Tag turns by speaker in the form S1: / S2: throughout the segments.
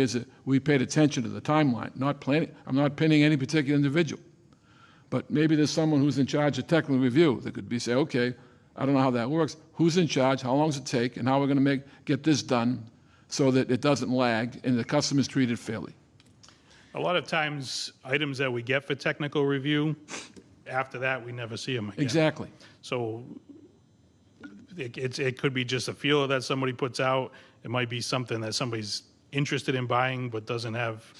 S1: is that we paid attention to the timeline, not planning, I'm not pinning any particular individual. But maybe there's someone who's in charge of technical review that could be, say, okay, I don't know how that works, who's in charge, how long does it take, and how we're gonna make, get this done so that it doesn't lag and the customer's treated fairly.
S2: A lot of times, items that we get for technical review, after that, we never see them again.
S1: Exactly.
S2: So it, it's, it could be just a feeler that somebody puts out. It might be something that somebody's interested in buying but doesn't have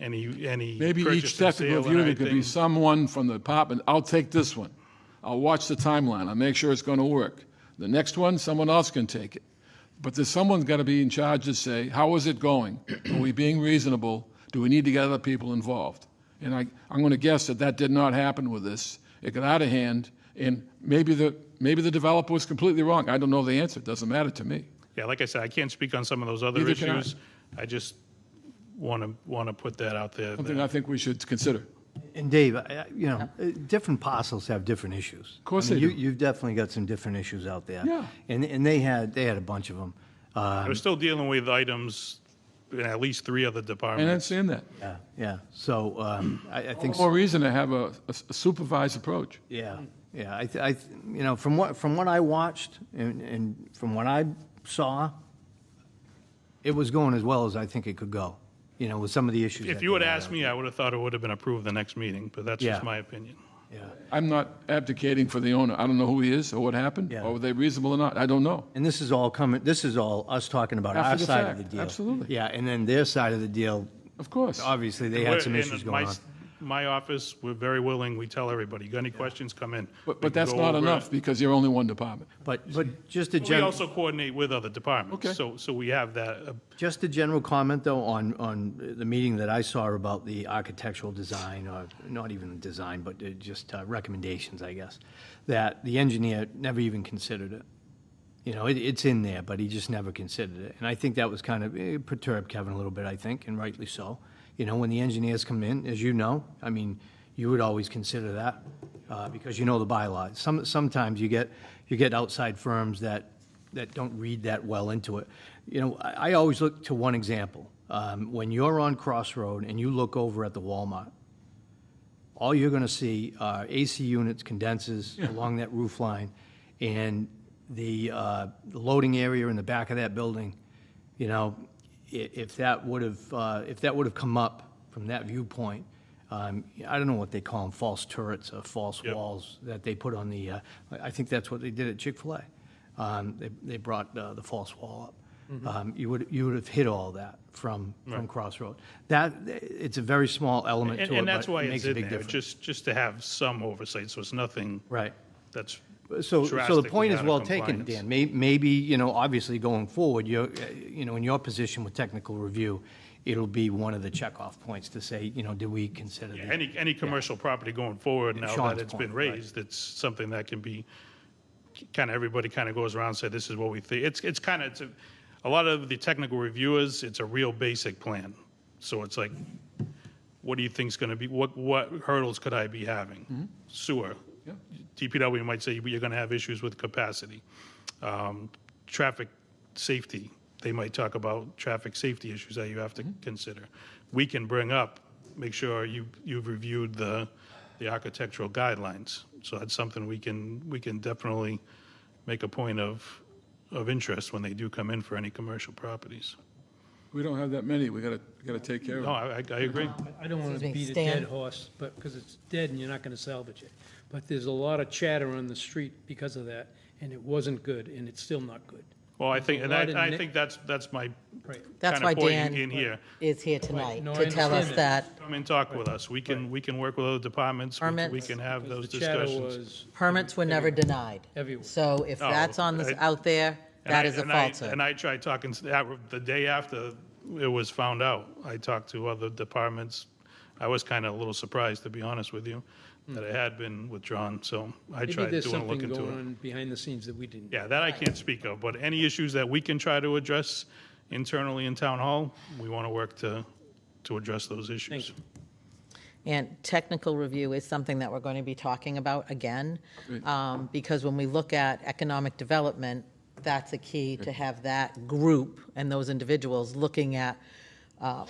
S2: any, any.
S1: Maybe each
S2: purchase and
S1: technical
S2: sale and
S1: review, there could be
S2: everything.
S1: someone from the department, I'll take this one. I'll watch the timeline, I'll make sure it's gonna work. The next one, someone else can take it. But there's someone's gotta be in charge to say, how is it going? Are we being reasonable? Do we need to get other people involved? And I, I'm gonna guess that that did not happen with this. It got out of hand, and maybe the, maybe the developer was completely wrong. I don't know the answer, it doesn't matter to me.
S2: Yeah, like I said, I can't speak on some of those other
S1: Neither can I.
S2: issues. I just want to, want to put that out there.
S1: Something
S2: that-
S1: I think we should consider.
S3: And Dave, I- I- you know, uh, different parcels have different issues. Of
S1: course they do.
S3: You've definitely got some different issues out there.
S1: Yeah.
S3: And, and they had, they had a bunch of Uh, them.
S2: I was still dealing with items in at least three other
S1: And I
S2: departments.
S1: understand that.
S3: Yeah, yeah. So um, I, I think.
S1: More reason to have a a supervised approach.
S3: Yeah, yeah, I, th- I, th- you know, from what, from what I watched and, and from what I saw, it was going as well as I think it could go, you know, with some of the issues.
S2: If
S3: that
S2: you
S3: they
S2: would
S3: had
S2: ask
S3: out.
S2: me, I would have thought it would have been approved the next meeting, but that's
S3: Yeah.
S2: just my opinion.
S3: Yeah,
S1: I'm not abdicating for the owner. I don't know who he is or what happened,
S3: Yeah.
S1: or were they reasonable or not. I don't know.
S3: and this is all coming, this is all us talking about
S1: After
S3: our
S1: the
S3: side of the
S1: fact,
S3: deal.
S1: absolutely.
S3: Yeah, and then their side of the deal,
S1: Of course.
S3: obviously, they
S2: We're-
S3: had some
S2: in
S3: issues
S2: my
S3: going on.
S2: s- My office, we're very willing, we tell everybody, got any questions, come in.
S1: But,
S2: We
S1: but
S2: can
S1: that's
S2: go
S1: not
S2: over it.
S1: enough because you're only one department.
S3: But, but just a
S2: We
S3: general,
S2: also coordinate with other departments.
S1: Okay.
S2: So, so we have that, uh,
S3: just a general comment, though, on, on the meeting that I saw about the architectural design, or not even the design, but uh, just uh, recommendations, I guess, that the engineer never even considered it. You know, it, it's in there, but he just never considered it. And I think that was kind of, it perturbed Kevin a little bit, I think, and rightly so. You know, when the engineers come in, as you know, I mean, you would always consider that, uh, because you know the bylaws. Some, sometimes you get, you get outside firms that, that don't read that well into it. You know, I, I always look to one example. Um, when you're on Crossroad and you look over at the Walmart, all you're going to see are AC units, condensers along that roof line, and the uh, the loading area in the back of that building, you know, i- if that would have, uh, if that would have come up from that viewpoint, um, I don't know what they call them, false turrets or false
S2: Yep.
S3: walls that they put on the, uh, I I think that's what they did at Chick-fil-A. Um, They they brought uh, the false wall up. Um, You would, you would have hit all that from, from Crossroad. That, it's a very small element
S2: and,
S3: to it,
S2: and
S3: but
S2: that's why
S3: it
S2: it's
S3: makes a
S2: in
S3: big
S2: there,
S3: difference.
S2: just, just to have some oversight, so it's nothing
S3: Right.
S2: that's
S3: So, so the
S2: drastically
S3: point is
S2: out of
S3: well taken,
S2: compliance.
S3: Dan. May- Maybe, you know, obviously going forward, you're, uh, you know, in your position with technical review, it'll be one of the checkoff points to say, you know, did we consider
S2: Yeah,
S3: the
S2: Any, any commercial property going forward, now that
S3: Sean's
S2: it's been
S3: point, right.
S2: raised, it's something that can be, kind of, everybody kind of goes around and say, this is what we think. It's, it's kind of, it's a, a lot of the technical reviewers, it's a real basic plan. So it's like, what do you think's going to be, what, what hurdles could I be having? Sewer. DPW might say, you're going to have issues with capacity. Um, Traffic safety, they might talk about traffic safety issues that you have to consider. We can bring up, make sure you, you've reviewed the, the architectural guidelines. So that's something we can, we can definitely make a point of, of interest when they do come in for any commercial properties.
S1: We don't have that many. We gotta, gotta take care
S2: No,
S1: of it.
S2: I, I- I agree.
S4: I don't want to
S5: Excuse me,
S4: beat a
S5: Stan.
S4: dead horse, but, because it's dead and you're not going to salvage it. But there's a lot of chatter on the street because of that, and it wasn't good, and it's still not good.
S2: Well, I think, and
S4: There's a lot
S2: I,
S4: of
S2: I
S4: ni-
S2: think that's, that's my
S4: Right.
S5: That's
S2: kinda
S5: why
S2: point
S5: Dan
S2: in here.
S5: is here tonight,
S4: no, I
S5: to tell us
S4: understand
S5: that
S4: that.
S2: Come and talk with us. We can, we can work with other departments. We can- We
S5: Permits.
S2: can have those
S4: Because the chatter
S2: discussions.
S4: was.
S5: permits were never denied.
S4: Everywhere.
S5: So if
S2: Oh,
S5: that's on, this
S2: I-
S5: out there,
S2: And
S5: that
S2: I-
S5: is a
S2: and I-
S5: falsehood.
S2: And I tried talking, to that- the day after it was found out, I talked to other departments. I was kind of a little surprised, to be honest with you, that it had been withdrawn, so I
S4: Hmm. Maybe
S2: tried doing
S4: there's
S2: a
S4: something
S2: look into
S4: going
S2: it.
S4: on behind the scenes that we didn't.
S2: Yeah, that I can't speak of, but any issues that we can try to address internally in town hall, we want to work to, to address those issues.
S4: you.
S5: And technical review is something that we're going to be talking about again, um, because when we look at economic development, that's a key to have that group and those individuals looking at uh,